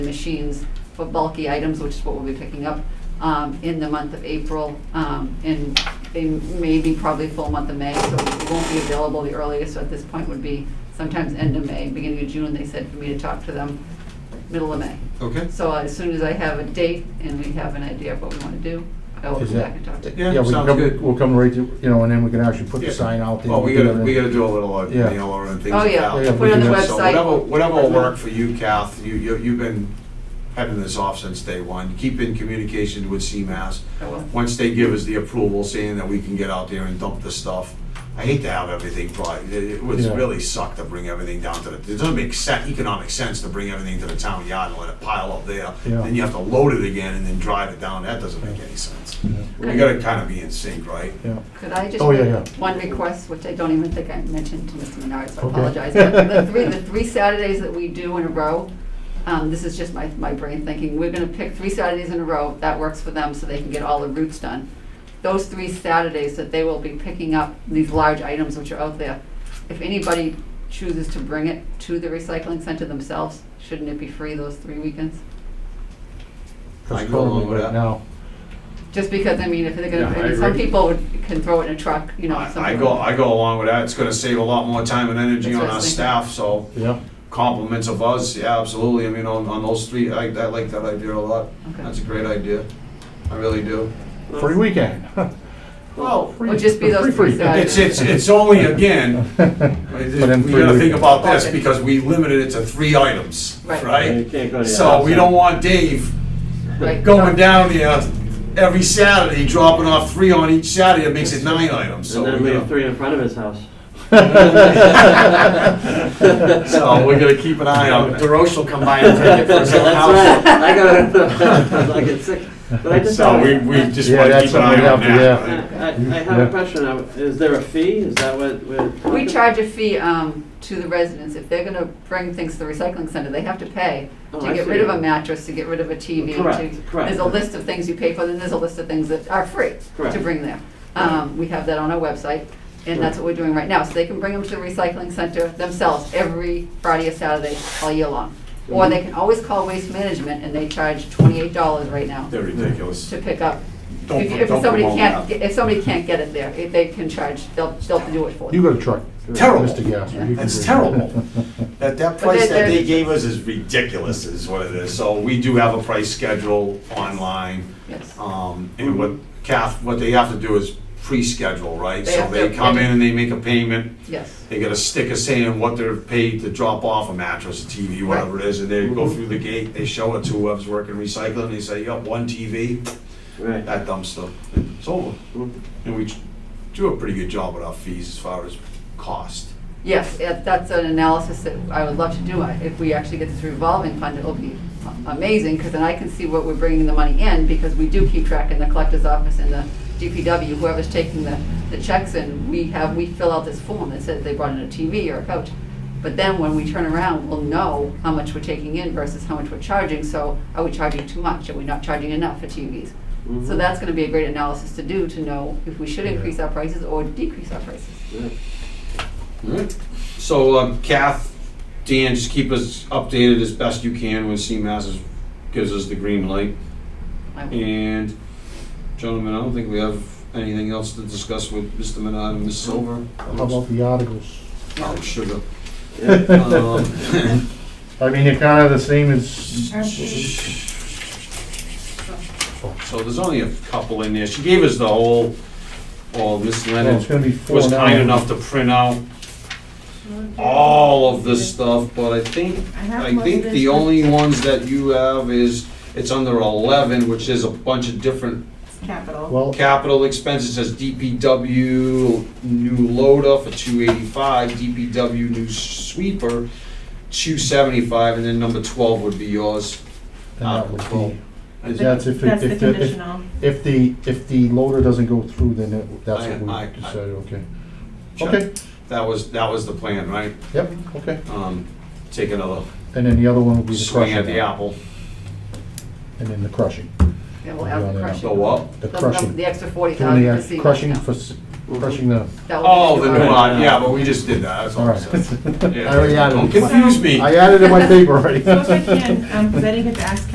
machines for bulky items, which is what we'll be picking up um, in the month of April. Um, And they may be probably full month of May, so it won't be available. The earliest at this point would be sometimes end of May, beginning of June, they said for me to talk to them, middle of May. Okay. So uh, as soon as I have a date and we have an idea of what we want to do, I will Is come that- back and talk to you. Yeah, we can sounds come- good. We'll come right to, you know, and then we can actually put Yeah. the sign out there. Well, we We'll gotta, get we it in. gotta do a little uh, Yeah. mailer and things. Oh, out. yeah, Yeah, put it on the we So Whatever, website. whatever will work for you, Kath, you, you- you've been heading this off since day one. Keep in communication with CMAS. I will. Once they give us the approval, saying that we can get out there and dump the stuff. I hate to have everything brought, it it would Yeah. really suck to bring everything down to the, it doesn't make sense, economic sense to bring everything to the town yard and let it pile up there. Yeah. Then you have to load it again and then drive it down, that doesn't make any sense. We Okay. gotta kinda be in sync, right? Yeah, Could I just Oh, yeah, make yeah. one request, which I don't even think I mentioned to Mr. Menard, so I Okay. apologize. But The three, the three Saturdays that we do in a row, um, this is just my, my brain thinking, we're gonna pick three Saturdays in a row, that works for them, so they can get all the routes done. Those three Saturdays that they will be picking up these large items which are out there, if anybody chooses to bring it to the recycling center themselves, shouldn't it be free those three weekends? I that's go along currently with right that. now. Just because, I mean, if they're Yeah, I gonna, some agree. people would- can throw it in a truck, you know, something. I I go, I go along with that, it's gonna save a lot more time and energy That's what on I our was staff, so Yeah, compliments of us, yeah, absolutely, I mean, on, on those three, I, I like that idea a lot. Okay. That's a great idea, I really do. free weekend. Well, Free- Would just be those free- free. three Saturdays. it's, it's, it's only, again, we But then gotta free think weekend. about this, Okay. because we limited it to three items, Right. right? You can't go to the So we outside. don't want Dave Right. going down there every Saturday, dropping off three on each Saturday, it makes it nine items, so. And then we we gotta- have three in front of his house. So we're gonna keep an eye on it. DeRoche will come by and take it for his own house. That's right, I got, I get sick, but I just. So have- we, we just Yeah, wanna that's keep an something eye we on have to- I, that. I I have Yeah. a question, Uh, is there a fee, is that what we're talking? We charge a fee um, to the residents. If they're going to bring things to the recycling center, they have to pay to Oh, I get see. rid of a mattress, to get rid of a TV. to- Correct, correct. There's a list of things you pay for, then there's a list of things that are free to Correct. bring there. Um, We have that on our website, and that's what we're doing right now. So they can bring them to the recycling center themselves every Friday or Saturday all year long. Mm-hmm. Or they can always call Waste Management, and they charge $28 right now They're ridiculous. to pick up. Don't If put- if don't somebody promote can't, that. get- if somebody can't get it there, if they can charge, they'll, they'll do it for them. You got a truck, Terrible. Mr. Gasser. you can That's do it. terrible. That, that price they're- that they gave us is ridiculous is what it is. So we do have a price schedule online. Yes. Um, and what Kath, what they have to do is pre-schedule, right? They So have they to- come in and they make a payment. Yes. They get a sticker saying what they're paid to drop off a mattress, a TV, whatever it is, and they go through the gate, they show it to whoever's working recycling, they say, yep, one TV, Right. that dumpster, it's over. Mhm. And we do a pretty good job with our fees as far as cost. Yes, if that's an analysis that I would love to do. I- If we actually get this revolving fund, it'll be a- amazing, because then I can see what we're bringing the money in, because we do keep track in the collector's office and the DPW, whoever's taking the, the checks in, we have, we fill out this form that says they brought in a TV or a couch. But then when we turn around, we'll know how much we're taking in versus how much we're charging, so are we charging too much? Are we not charging enough for TVs? So Mhm. that's gonna be a great analysis to do, to know if we should increase our prices or decrease our prices. Right. Alright. So um, Kath, Dan, just keep us updated as best you can when CMAS is- gives us the green light. I will- And gentlemen, I don't think we have anything else to discuss with Mr. Menard and Ms. Silver. How about the articles? Oh, sugar. Yeah. Um, I mean, they're kind of the same as, So there's only a couple in there. She gave us the whole, well, Miss well, Leonard it's gonna be four now. was kind enough to print out all of this stuff, but I think, have I most of think this, the but- only ones that you have is, it's under eleven, which is a bunch of different Capital. Well, capital expenses, It says DPW new loader for two eighty-five, DPW new sweeper, two seventy-five, and then number twelve would be yours. then that would be, Is that's if, it- That's the if, the- if, conditional. if the, if the loader doesn't go through, then it- that's I- what I- I- we decided, okay. Okay, That was, that was the plan, right? yep, okay. Um, take another And then the other one will be the swing crushing. at the apple, And then the crushing, Yeah, we'll have the Yeah, crushing. go up. the The- the- crushing. The extra forty Doing thousand. the uh, crushing for, s- crushing the, That will Oh, be the the new new lot, yeah, but we just did that, that's all all I right. said. I already added Don't it. confuse me. I added it in my paper already. So if I can, um, 'cause I didn't get to ask